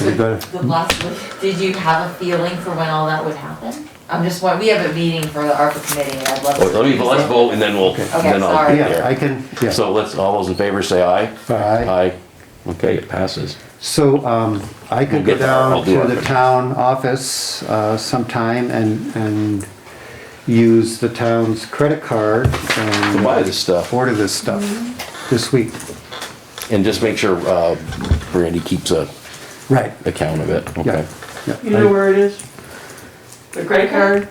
We're good. the last week, did you have a feeling for when all that would happen? I'm just, wa- we have a meeting for the ARPA committee and I'd love to. Well, Let me, let's Oh, vote and then we'll, then I'll. sorry. Yeah, I can, yeah. So uh, let's, all those in favor say aye. Aye. Aye. Okay, it passes. So, um, I could We'll go get there. I'll down do to it. the town office, uh, sometime and, and use the town's credit card and. To buy this stuff. Order this stuff Mm-hmm. this week. And just make sure, uh, Brandy keeps a Right. account of it, Yeah, okay? yeah. You know where it is? The credit card?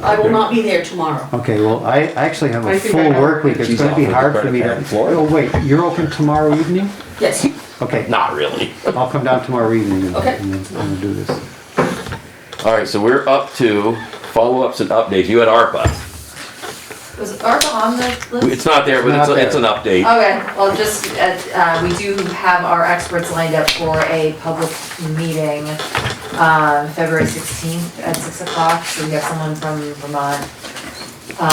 I will not be there tomorrow. Okay, well, I actually have I a think full I know. work week. It's She's gonna be off with the hard for credit me card to. in Florida. Oh, wait, you're open tomorrow evening? Yes. Okay, Not really. I'll come down tomorrow evening and- Okay. and then- and do this. All right, so we're up to follow-ups and updates. You had ARPA. Was ARPA on the list? It's not there, but it's, it's an update. Okay, well, just, uh, uh, we do have our experts lined up for a public meeting, uh, February sixteenth at six o'clock, so we have someone from Vermont,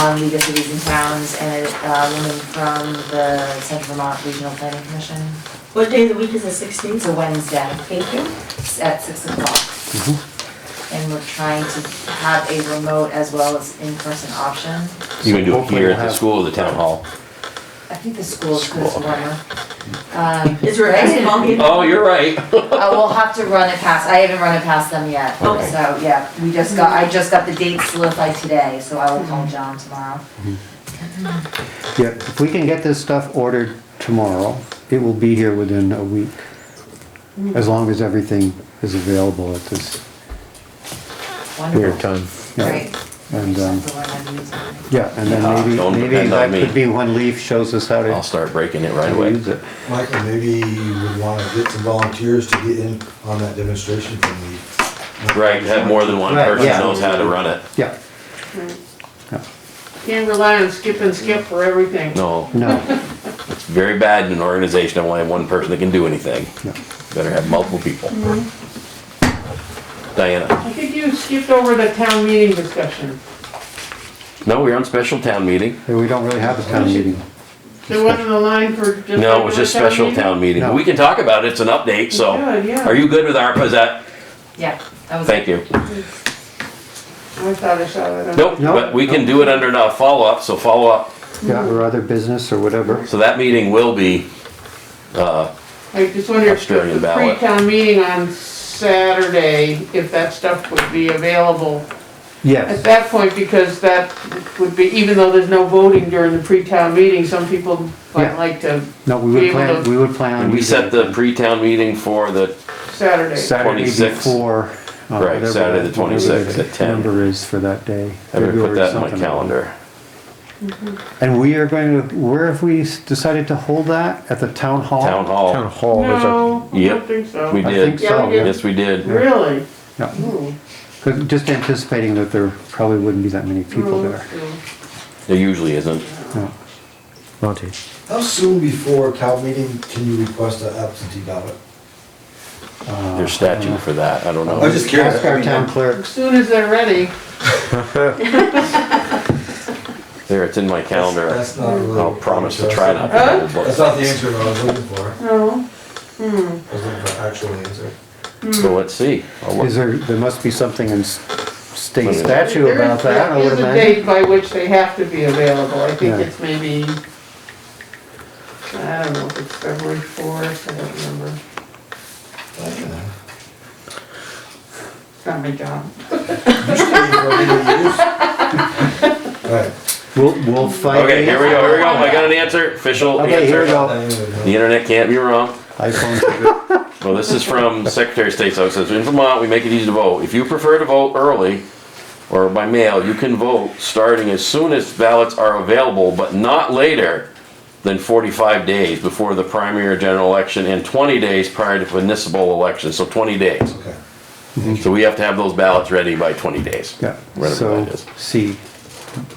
um, League of Cities and Towns, and a woman from the Central Vermont Regional Planning Commission. What day of the week is the sixteenth? It's a Wednesday Thank you. at six o'clock. Mm-hmm. And we're trying to have a remote as well as in-person option. You can do it Uh, Hopefully here we'll at the have- school or the town hall. I think the school's gonna School. run. Um, Is there a Right. testimony? Oh, you're right. I will Uh, have to run it past, I haven't run it past them yet, so, Okay. yeah, we just got, I just got the date solidified today, so I will call Mm-hmm. John tomorrow. Yeah, if we can get this stuff ordered tomorrow, it will be here within a week. As long as everything is available at this, Wonderful. time. yeah. Great. And, Just um, have to learn how to use it. yeah, and Yeah, then Uh, maybe, don't maybe depend on that me. could be when Leaf shows us how to. I'll start breaking it right how to away. use it. Michael, maybe you would want to get some volunteers to get in on that demonstration thing. Right, have more than one Right, person yeah. knows how to run it. Yeah, Can't rely on skip and skip for everything. No, no, it's very bad in an organization. I only have one person that can do anything. no. Better have multiple people. Diana, I think you skipped over the town meeting discussion. no, we're on special town meeting. Hey, We don't really have a town meeting. There wasn't a line for just. No, it was just regular special meeting? town meeting. No. We can talk about it, it's an update, so. Good, yeah. Are you good with ARPA, is that, Yeah, that was. thank you. I thought I saw that. on- Nope, No. but we can do it under now follow-up, so follow-up. Yeah, or other business or whatever. So that meeting will be, uh, I just wonder if Australian the ballot. pre-town meeting on Saturday, if that stuff would be available at Yes, that point, because that would be, even though there's no voting during the pre-town meeting, some people might Yeah. like to no, we Be would able plan, to- we would plan on. we set the pre-town meeting for the, Saturday. Saturday 26th. before. uh, Right, whatever Saturday the that- whatever 26th at that 10. Number is for that day. I'm gonna put February that in my something. calendar. And we are going to, where have we decided to hold that? At the town hall? Town hall. Town hall is a, No, I Yep. don't think We so. I did, think Yeah, so. we did. yes, we did. Really? Yeah. Ooh. 'Cause just anticipating that there probably wouldn't be that many people Hmm, there. There usually isn't. Yeah. Monty. How soon before town meeting can you request an absentee ballot? There's statute for that, I don't I was know. just curious. Ask our town As clerks. soon as they're ready, There, it's in my calendar. That's not really. I'll promise to try not to. hold That's it. not the answer that I was looking for. no, I was looking for an actual answer. So let's see. I'll look. Hmm. Is there, there must be something in s- state Maybe. statute There about is, that, I there would is a imagine. date by which they have to be available, I think Yeah. it's maybe, I don't know if it's February fourth, I don't remember, I don't know. it's not my job. Usually for a million years. Right. We'll, we'll find. Okay, here we go, here we go. I got an answer, official Okay, here we answer. go. I don't know. The internet can't be wrong. iPhones are good. Well, this is from Secretary of State's office. It says, In Vermont, we make it easy to vote. If you prefer to vote early or by mail, you can vote starting as soon as ballots are available, but not later than 45 days before the primary or general election and 20 days prior to municipal election, so 20 days. Okay. So we have to have those ballots ready by 20 days. Yeah, Whatever so, that is. see,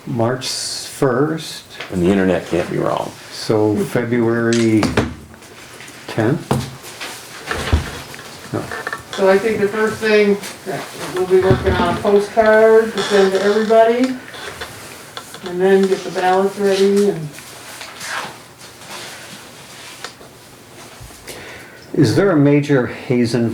March first, And the internet can't be wrong. so February tenth? So I think the first thing, that we'll be working on a postcard to send to everybody, and then get the ballots ready and. Is there a major Hazen